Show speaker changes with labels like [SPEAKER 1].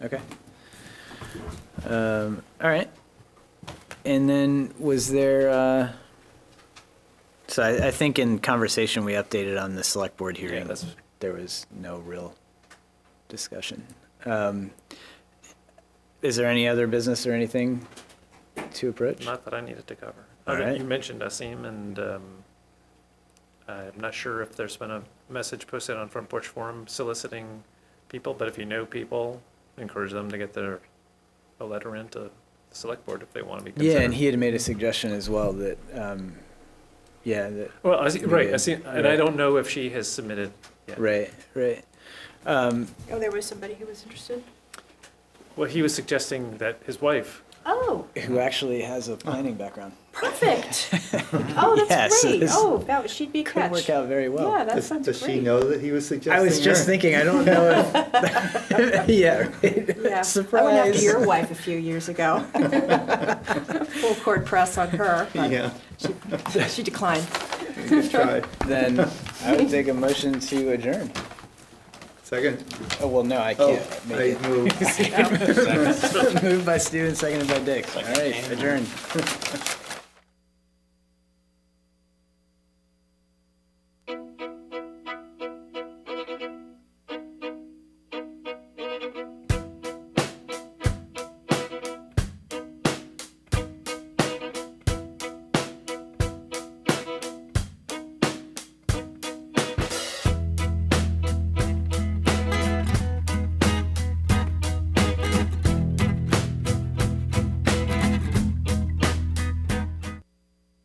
[SPEAKER 1] Okay. Um, all right. And then was there, uh, so I, I think in conversation we updated on the select board hearing.
[SPEAKER 2] that's-
[SPEAKER 1] There was no real discussion. Um, is there any other business or anything to approach?
[SPEAKER 2] Not that I needed to cover.
[SPEAKER 1] All
[SPEAKER 2] Okay,
[SPEAKER 1] right.
[SPEAKER 2] You mentioned Asim, and um, I'm not sure if there's been a message posted on Front Porch Forum soliciting people, but if you know people, encourage them to get their, a letter into the select board if they want to be considered.
[SPEAKER 1] Yeah, and he had made a suggestion as well that, um, yeah, that
[SPEAKER 2] Well, Asi- right,
[SPEAKER 1] Yeah.
[SPEAKER 2] Asim, and I
[SPEAKER 1] Right.
[SPEAKER 2] don't know if she has submitted. yet.
[SPEAKER 1] Right, right. Um,
[SPEAKER 3] Oh, there was somebody who was interested?
[SPEAKER 2] Well, he was suggesting that his wife,
[SPEAKER 3] Oh,
[SPEAKER 1] who actually has a planning background.
[SPEAKER 3] perfect. Oh,
[SPEAKER 1] Yes,
[SPEAKER 3] that's great.
[SPEAKER 1] this
[SPEAKER 3] Oh, that, she'd be a
[SPEAKER 1] Could
[SPEAKER 3] catch.
[SPEAKER 1] work out very
[SPEAKER 3] Yeah,
[SPEAKER 1] well.
[SPEAKER 3] that
[SPEAKER 4] Does,
[SPEAKER 3] sounds
[SPEAKER 4] does she
[SPEAKER 3] great.
[SPEAKER 4] know that he was suggesting?
[SPEAKER 1] I was just
[SPEAKER 4] her?
[SPEAKER 1] thinking, I don't know if, yeah,
[SPEAKER 3] Yeah.
[SPEAKER 1] right.
[SPEAKER 3] I went after
[SPEAKER 1] surprise.
[SPEAKER 3] your wife a few years ago. Full court press on her, but
[SPEAKER 4] Yeah,
[SPEAKER 3] she declined.
[SPEAKER 4] good try.
[SPEAKER 1] Then I would take a motion to adjourn.
[SPEAKER 4] Second.
[SPEAKER 1] Oh, well, no, I
[SPEAKER 4] Oh,
[SPEAKER 1] can't
[SPEAKER 4] I
[SPEAKER 1] make
[SPEAKER 4] move.
[SPEAKER 3] Oh.
[SPEAKER 1] it. Moved by Stu and seconded by Dick. All right, adjourn.